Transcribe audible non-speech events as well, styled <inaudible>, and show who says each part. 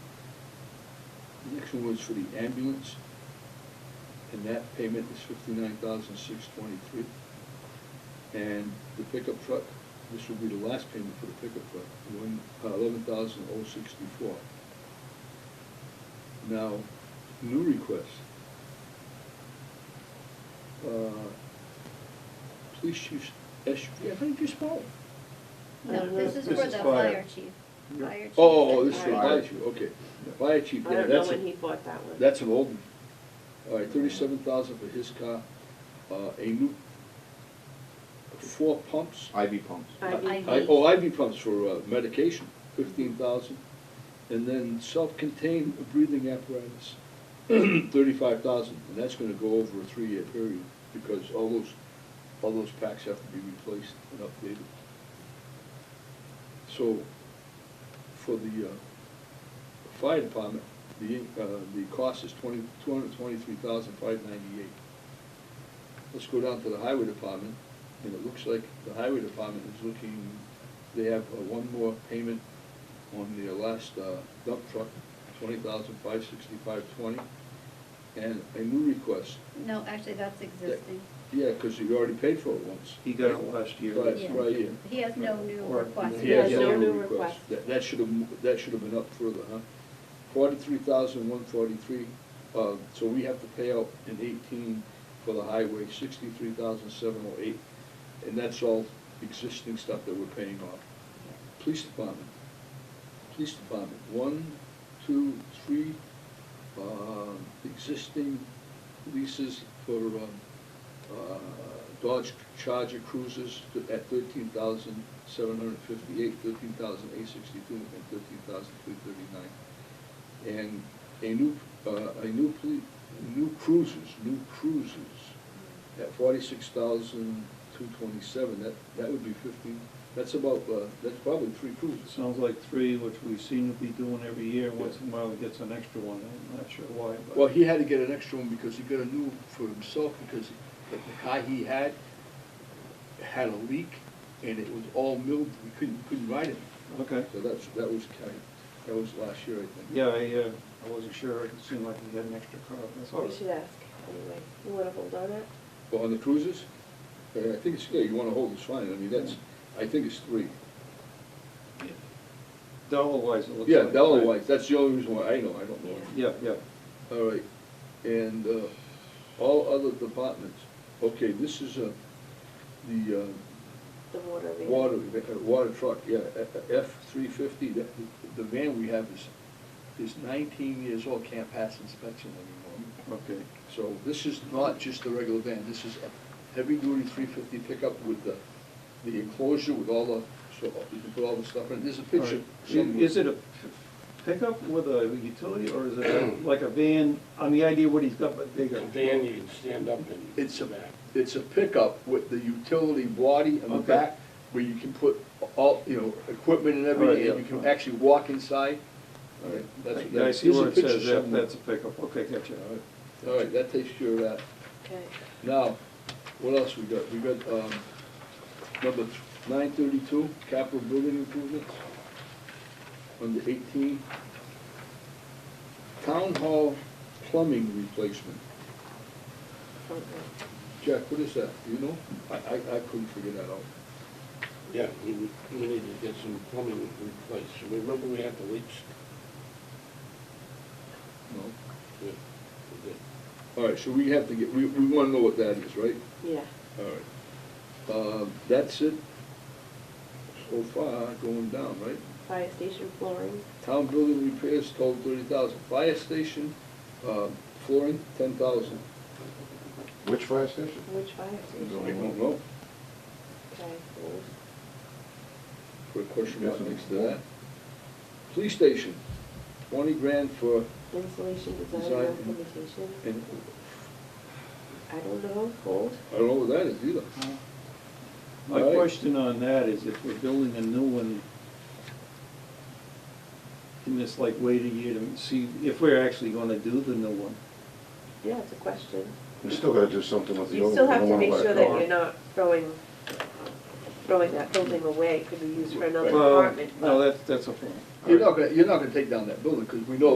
Speaker 1: The next one was for the ambulance, and that payment is fifty-nine thousand six twenty-three. And the pickup truck, this will be the last payment for the pickup truck, one, eleven thousand oh sixty-four. Now, new request. Uh, Police chief, S, yeah, how did you spell it?
Speaker 2: No, Uh, this is for
Speaker 3: This
Speaker 2: the
Speaker 3: is
Speaker 2: fire
Speaker 3: fire.
Speaker 2: chief. Fire chief.
Speaker 1: Oh, this is
Speaker 2: Fire.
Speaker 1: for fire chief, okay. Fire chief,
Speaker 3: I
Speaker 1: yeah,
Speaker 3: don't know
Speaker 1: that's
Speaker 3: when he
Speaker 1: a,
Speaker 3: bought that one.
Speaker 1: that's an old one. All right, thirty-seven thousand for his car, uh, a new, four pumps.
Speaker 4: Ivy pumps.
Speaker 3: IV.
Speaker 1: I- Oh, IV pumps for uh, medication, fifteen thousand. And then self-contained breathing apparatus, <clears throat> thirty-five thousand, and that's gonna go over a three-year period, because all those, all those packs have to be replaced and updated. So, for the, uh, fire department, the, in- uh, the cost is twenty, two hundred twenty-three thousand five ninety-eight. Let's go down to the highway department, and it looks like the highway department is looking, they have uh, one more payment on their last uh, dump truck, twenty thousand five sixty-five twenty, and a new request.
Speaker 2: No, actually, that's existing.
Speaker 1: Yeah, because you already paid for it once.
Speaker 5: He got it last year.
Speaker 1: Right,
Speaker 2: Yeah.
Speaker 1: right, yeah.
Speaker 2: He has no new
Speaker 5: Or-
Speaker 2: requests.
Speaker 3: He has no new request.
Speaker 1: That, that should have, that should have been up further, huh? Forty-three thousand, one forty-three, uh, so we have to pay out in eighteen for the highway, sixty-three thousand, seven oh eight, and that's all existing stuff that we're paying off. Police department, police department, one, two, three, um, existing leases for, um, uh, Dodge Charger cruisers to- at thirteen thousand seven hundred fifty-eight, thirteen thousand eight sixty-two, and thirteen thousand three thirty-nine. And a new, uh, a new police, new cruisers, new cruisers at forty-six thousand two twenty-seven, that, that would be fifteen, that's about, uh, that's probably three
Speaker 5: It
Speaker 1: cruisers.
Speaker 5: Sounds like three, which we seem to be doing every year. Once in a while, he gets an extra one. I'm not sure why, but.
Speaker 1: Well, he had to get an extra one because he got a new for himself because the the car he had had a leak and it was all milled, we couldn't, couldn't ride it.
Speaker 5: Okay.
Speaker 1: So that's, that was kind, that was last year, I think.
Speaker 5: Yeah, I, uh, I wasn't sure. It seemed like he had an extra car. That's all.
Speaker 3: We should ask, anyway. You wanna hold on it?
Speaker 1: But on the cruises, uh, I think it's, yeah, you wanna hold this fine, I mean, that's, I think it's three.
Speaker 5: Dollar-wise, it looks like.
Speaker 1: Yeah, Delaware White, that's the only reason why I know, I don't know.
Speaker 3: Yeah.
Speaker 5: Yeah, yeah.
Speaker 1: All right, and uh, all other departments, okay, this is a, the uh,
Speaker 3: The water. van.
Speaker 1: water, uh, water truck, yeah, uh, F three fifty, the the van we have is, is nineteen years old, can't pass inspection anymore.
Speaker 5: Okay.
Speaker 1: So this is not just a regular van, this is a heavy-duty three fifty pickup with the, the enclosure with all the, so uh, you can put all the stuff in, there's a
Speaker 5: All
Speaker 1: picture.
Speaker 5: right. I- Is it a p- pickup with a utility or is it like a van? On the idea what he's got, but bigger.
Speaker 6: A van you can stand up and.
Speaker 1: It's a,
Speaker 6: back.
Speaker 1: it's a pickup with the utility body on the
Speaker 5: Okay.
Speaker 1: back, where you can put all, you know, equipment and everything,
Speaker 5: Alright,
Speaker 1: and you
Speaker 5: yeah.
Speaker 1: can actually walk inside. All right, that's-
Speaker 5: Yeah, I
Speaker 1: that-
Speaker 5: see
Speaker 1: there's a
Speaker 5: where it
Speaker 1: picture
Speaker 5: says that,
Speaker 1: somewhere.
Speaker 5: that's a pickup. Okay, gotcha.
Speaker 1: All right. All right, that takes care of that.
Speaker 3: Okay.
Speaker 1: Now, what else we got? We got, um, number nine thirty-two, capital building improvements, under eighteen. Town hall plumbing replacement.
Speaker 3: Okay.
Speaker 1: Jack, what is that? Do you know? I, I, I couldn't figure that out.
Speaker 6: Yeah, we, we need to get some plumbing replaced. Remember we had the leaks?
Speaker 1: No?
Speaker 6: Yeah, we did.
Speaker 1: All right, so we have to get, we, we wanna know what that is, right?
Speaker 3: Yeah.
Speaker 1: All right. Uh, that's it so far going down, right?
Speaker 3: Fire station flooring.
Speaker 1: Town building repairs total thirty thousand. Fire station, uh, flooring, ten thousand.
Speaker 4: Which fire station?
Speaker 3: Which fire
Speaker 1: I
Speaker 3: station?
Speaker 1: don't know.
Speaker 3: Okay, hold.
Speaker 1: Put a question mark next to that. Police station, twenty grand for,
Speaker 3: Insulation design
Speaker 1: Design.
Speaker 3: and implementation.
Speaker 1: and
Speaker 3: I don't know, hold.
Speaker 1: I don't know what that is either.
Speaker 5: My
Speaker 1: Right.
Speaker 5: question on that is if we're building a new one, can this like wait a year to see if we're actually gonna do the new one?
Speaker 3: Yeah, it's a question.
Speaker 4: We still gotta do something with the old.
Speaker 3: You still
Speaker 4: one. We
Speaker 3: have
Speaker 4: don't
Speaker 3: to
Speaker 4: wanna
Speaker 3: make
Speaker 4: let it
Speaker 3: sure
Speaker 4: go.
Speaker 3: that you're not throwing, throwing that building away. It could be used for another
Speaker 5: Well,
Speaker 3: apartment.
Speaker 5: No,
Speaker 3: but-
Speaker 5: that's, that's a problem.
Speaker 1: You're not gonna, you're not gonna take down that building, because we know